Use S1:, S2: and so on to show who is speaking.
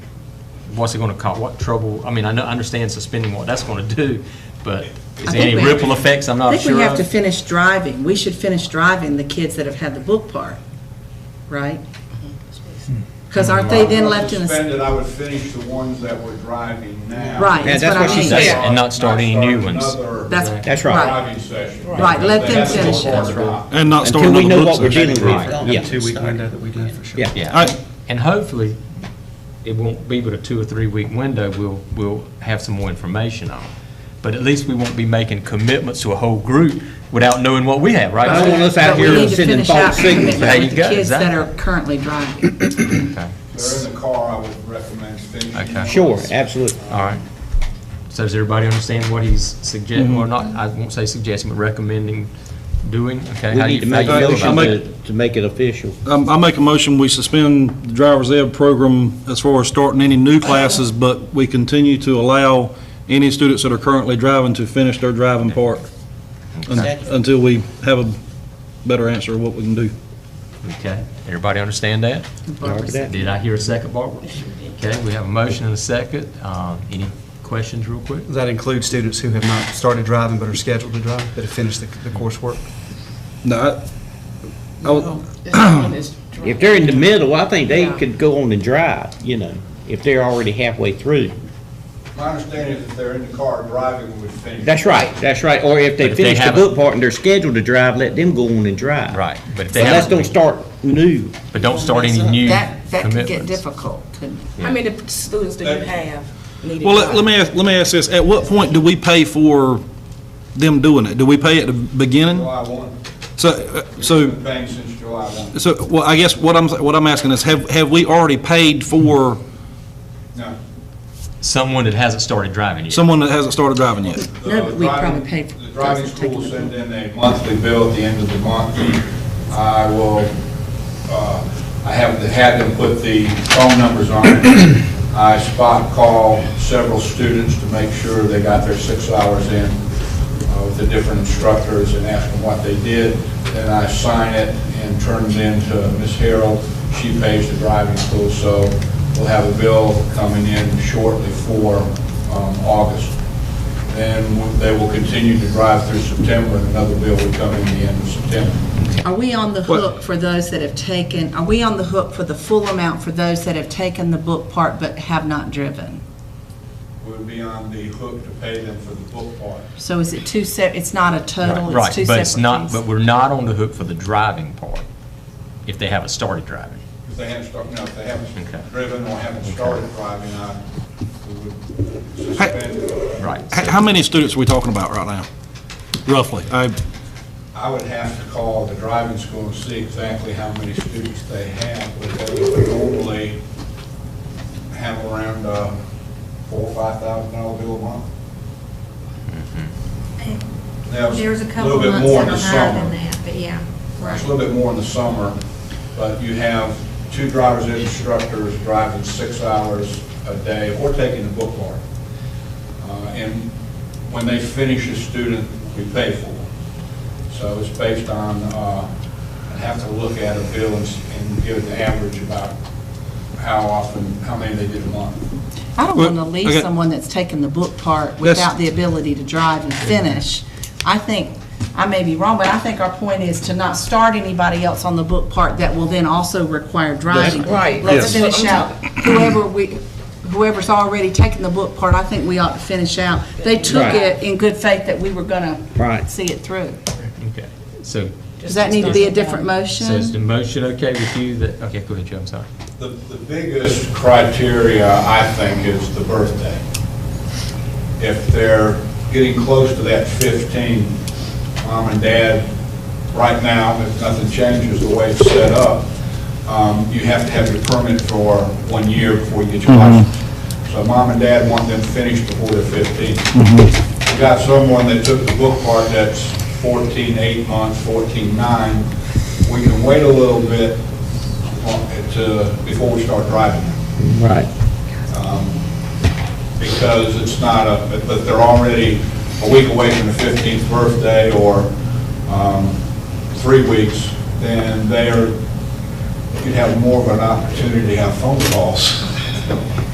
S1: what's it gonna cause, what trouble, I mean, I know, I understand suspending what that's gonna do, but is
S2: I
S1: there
S2: think
S1: any
S2: we have
S1: ripple
S2: to-
S1: effects I'm
S2: I
S1: not
S2: think we
S1: sure
S2: have to
S1: of?
S2: finish driving. We should finish driving the kids that have had the book part, right? Because aren't they then left in the,
S3: Suspended, I would finish the ones that we're driving now.
S2: Right,
S4: Yeah, that's that's what what I she mean. said.
S1: Yeah, and not start any new ones.
S3: Another
S2: That's-
S4: That's right.
S3: Driving session.
S2: Right, let them
S3: That's the
S2: finish it.
S3: hard part.
S5: And not start
S4: Until we
S5: another
S4: know
S5: book
S4: what we're
S5: session.
S4: dealing with,
S6: Right.
S4: yeah.
S6: Two-week window that we do for sure.
S4: Yeah.
S1: Yeah,
S5: I-
S1: and- and hopefully, it won't be but a two or three-week window, we'll, we'll have some more information on. But at least we won't be making commitments to a whole group without knowing what we have, right?
S4: I don't want us
S2: but
S4: out
S2: we
S4: here
S2: need to
S4: sending
S2: finish out
S4: false
S2: the
S4: signals.
S2: commitment
S1: There you
S2: with the
S1: go,
S2: kids that
S1: exactly. Mm.
S2: are currently driving.
S1: Okay,
S3: They're in the car, I would recommend finishing.
S1: Okay.
S4: Sure, absolutely.
S1: all right. So does everybody understand what he's
S4: Mm-hmm.
S1: suggesting, or not, I won't say suggesting, but recommending doing? Okay,
S4: We
S1: how do
S4: need
S1: you
S4: to make
S1: feel
S4: a
S1: about
S4: motion
S1: that?
S4: to, to make it official.
S5: Um, I make a motion, we suspend the driver's ed program as far as starting any new classes, but we continue to allow any students that are currently driving to finish their driving part un- until we have a better answer of what we can do.
S1: Okay, everybody understand that?
S2: Barbara said-
S1: Did I hear a second, Barbara? Okay, we have a motion and a second. Um, Any questions real quick?
S6: Does that include students who have not started driving but are scheduled to drive, that have finished the the coursework?
S5: No, I- I, would-
S4: If they're in the middle, I think they could go on and drive, you know, if they're already halfway through.
S3: My understanding is if they're in the car driving, we would finish.
S4: That's right, that's right. Or if
S1: But if
S4: they
S1: they
S4: finish the
S1: haven't-
S4: book part and they're scheduled to drive, let them go on and drive.
S1: Right, but if they
S4: But let's don't
S1: haven't,
S4: start new.
S1: but don't start any new
S2: That, that could get
S1: commitments.
S2: difficult, couldn't it?
S7: How many students do you have needed?
S5: well, let- let me, ask. let me ask this, at what point do we pay for them doing it? Do we pay at the beginning?
S3: July one,
S5: So, uh, so
S3: been paying since July one.
S5: So, well, I guess what I'm, what I'm asking is, have, have we already paid for
S3: No,
S1: Someone that hasn't started driving yet.
S5: someone that hasn't started driving yet?
S3: the
S2: No, but we
S3: Uh, driving-
S2: probably paid for-
S3: The driving
S2: doesn't take
S3: school
S2: it.
S3: send in a monthly bill at the end of the month. I will, uh, I have had them put the phone numbers on. it. I spot call several students to make sure they got their six hours in uh, with the different instructors and ask them what they did. Then I sign it and turn it in to Ms. Harold. She pays the driving school, so we'll have a bill coming in shortly for um, August. And they will continue to drive through September, and another bill will come in the end of September.
S2: Are we on the hook for those that have taken, are we on the hook for the full amount for those that have taken the book part but have not driven?
S3: We'll be on the hook to pay them for the book part.
S2: So is it two sep, it's not a total, it's
S1: Right,
S2: two
S1: but it's
S2: separate
S1: not,
S2: fees?
S1: but we're not on the hook for the driving part, if they haven't started driving.
S3: If they haven't started, no, if they
S1: Okay.
S3: haven't driven or haven't started driving, I we would suspend.
S1: Right.
S5: H- How many students are we talking about right now, roughly? I,
S3: I would have to call the driving school and see exactly how many students they have, but they would normally have around uh, four, or five thousand dollar bill a month. Now, it's
S8: There's a couple
S3: little bit
S8: months
S3: more in
S8: that are
S3: the
S8: higher
S3: summer.
S8: than that, but yeah,
S3: It's a
S8: right.
S3: little bit more in the summer, but you have two drivers and instructors driving six hours a day or taking the book part. Uh, And when they finish a student, we pay for them. So it's based on, uh, I'd have to look at a bill and s- and give an average about how often, how many they did a month.
S2: I don't
S5: Well,
S2: want to leave
S5: okay.
S2: someone that's taken the book part
S5: That's-
S2: without the ability to drive and finish. I think, I may be wrong, but I think our point is to not start anybody else on the book part that will then also require driving.
S7: right.
S2: Let's
S7: Yes.
S2: finish out whoever we, whoever's already taken the book part, I think we ought to finish out. They took
S4: Right.
S2: it in good faith that we were going to
S4: Right.
S2: see it through.
S1: Okay, so,
S2: Does that need to be a different motion?
S1: so is the motion okay with you that, okay, go ahead, Joe, I'm sorry.
S3: The the biggest criteria, I think, is the birthday. If they're getting close to that 15, mom and dad, right now, if nothing changes the way it's set up, um, you have to have your permit for one year before you get your license. So mom and dad want them finished before they're 15. You got someone that took the book part that's 14, 8 months, 14, 9, we can wait a little bit on- to, before we start driving,
S4: Right.
S3: because it's not a, but- but they're already a week away from the 15th birthday or um, three weeks, then they're, you'd have more of an opportunity to have phone calls